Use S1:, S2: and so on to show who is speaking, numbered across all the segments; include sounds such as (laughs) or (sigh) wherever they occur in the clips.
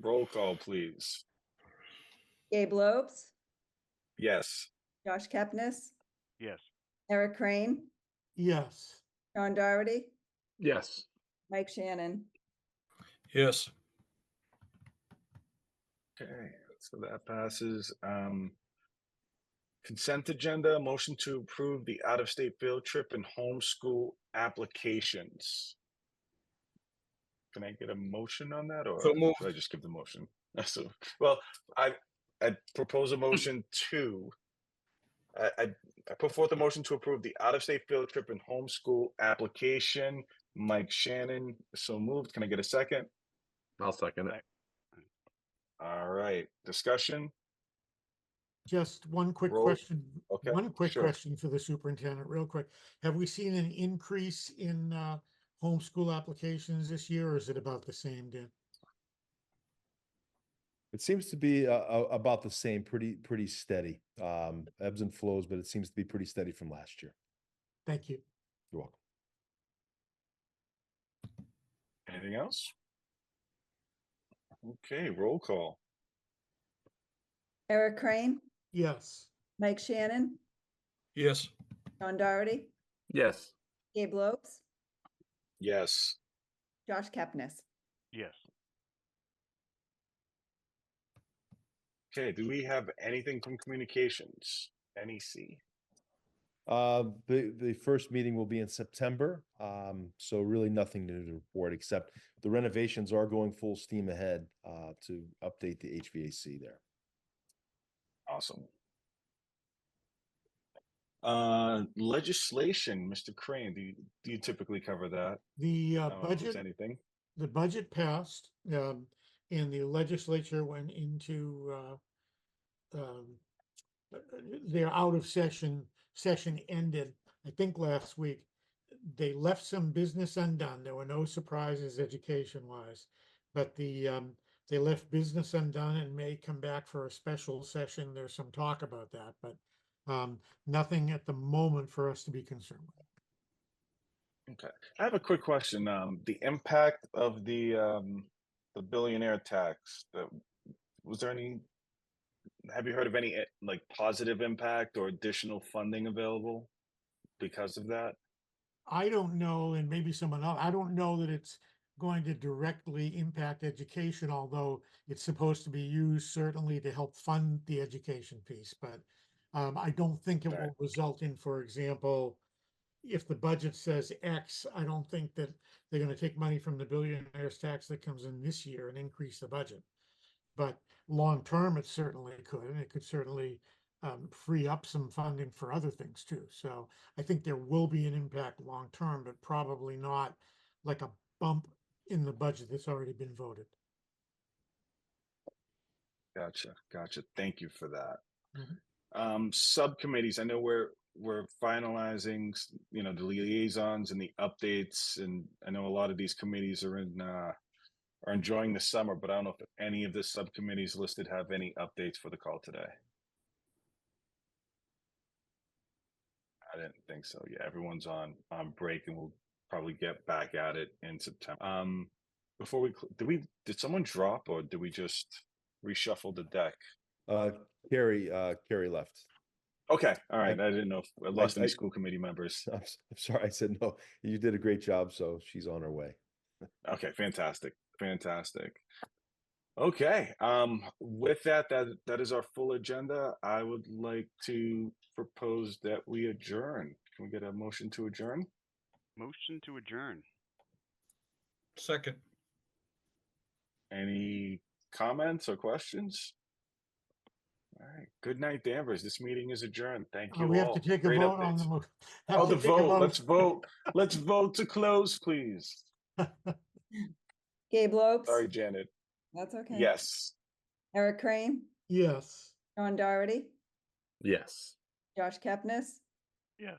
S1: Roll call, please.
S2: Gabe Lobes,
S1: Yes.
S2: Josh Kepnes,
S3: Yes.
S2: Eric Crane,
S4: yes.
S2: John Dougherty,
S5: Yes.
S2: Mike Shannon.
S6: yes.
S1: Okay, so that passes. Um, consent agenda, motion to approve the out-of-state field trip and homeschool applications. Can I get a motion on that or
S6: So moved.
S1: should I just give the motion? (laughs) So, well, I, I propose a
S6: (laughs)
S1: motion to I, I, I put forth a motion to approve the out-of-state field trip and homeschool application. Mike Shannon, so moved. Can I get a second?
S5: I'll second it.
S1: All right, discussion?
S4: Just one quick
S1: Roll-
S4: question,
S1: okay,
S4: one quick
S1: sure.
S4: question for the superintendent, real quick. Have we seen an increase in uh, homeschool applications this year, or is it about the same, Dan?
S7: It seems to be uh, uh, about the same, pretty, pretty steady. Um, ebbs and flows, but it seems to be pretty steady from last year.
S4: Thank you.
S7: You're welcome.
S1: Anything else? Okay, roll call.
S2: Eric Crane,
S4: Yes.
S2: Mike Shannon,
S6: Yes.
S2: John Dougherty,
S5: Yes.
S2: Gabe Lobes,
S1: Yes.
S2: Josh Kepnes.
S3: Yes.
S1: Okay, do we have anything from communications? NEC?
S7: Uh, the, the first meeting will be in September. Um, so really nothing new to report, except the renovations are going full steam ahead, uh, to update the HVAC there.
S1: Awesome. Uh, legislation, Mr. Crane, do you, do you typically cover that?
S4: The uh,
S1: I don't know if there's
S4: budget
S1: Anything?
S4: the budget passed, um, and the legislature went into, uh, um, uh, uh, they're out of session, session ended, I think last week. They left some business undone. There were no surprises education wise. But the, um, they left business undone and may come back for a special session. There's some talk about that, but, um, nothing at the moment for us to be concerned with.
S1: I have a quick question. Um, the impact of the, um, the billionaire tax, that, was there any? Have you heard of any eh, like positive impact or additional funding available because of that?
S4: I don't know, and maybe someone else, I don't know that it's going to directly impact education, although it's supposed to be used certainly to help fund the education piece, but um, I don't think it
S1: Right.
S4: will result in, for example, if the budget says X, I don't think that they're gonna take money from the billionaire's tax that comes in this year and increase the budget. But long-term, it certainly could, and it could certainly um, free up some funding for other things too, so I think there will be an impact long term, but probably not like a bump in the budget that's already been voted.
S1: Gotcha, gotcha. Thank you for that.
S4: Mhm.
S1: Um, subcommittees, I know we're, we're finalizing, s- you know, the liaisons and the updates and I know a lot of these committees are in, uh, are enjoying the summer, but I don't know if any of the subcommittees listed have any updates for the call today. I didn't think so. Yeah, everyone's on, on break and we'll probably get back at it in September. Um, before we, cl- did we, did someone drop or did we just? reshuffle the deck.
S7: Uh, Carrie, uh, Carrie left. (laughs)
S1: Okay, all right. I didn't know if I lost
S7: I-
S1: any school committee members.
S7: I'm s- I'm sorry. I said, no, you did a great job. So she's on her way.
S1: Okay, fantastic, fantastic. Okay, um, with that, that that is our full agenda. I would like to propose that we adjourn. Can we get a motion to adjourn?
S3: Motion to adjourn.
S6: Second.
S1: Any comments or questions? All right. Good night, Danvers. This meeting is adjourned. Thank
S4: Uh,
S1: you
S4: we have
S1: all.
S4: to take a
S1: Great
S4: vote on
S1: updates.
S4: the. mo- (laughs) have
S1: Oh,
S4: to
S1: the
S4: take a
S1: vote. Let's vote. Let's vote to close, please.
S2: Gabe Lobes.
S1: Sorry, Janet.
S2: That's okay.
S1: Yes.
S2: Eric Crane,
S4: (laughs) Yes.
S2: John Dougherty,
S5: Yes.
S2: Josh Kepnes,
S3: Yes.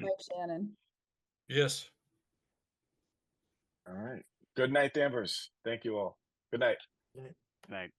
S2: Mike Shannon.
S6: Yes.
S1: All right. Good night, Danvers. Thank you all. Good night.
S3: Thank.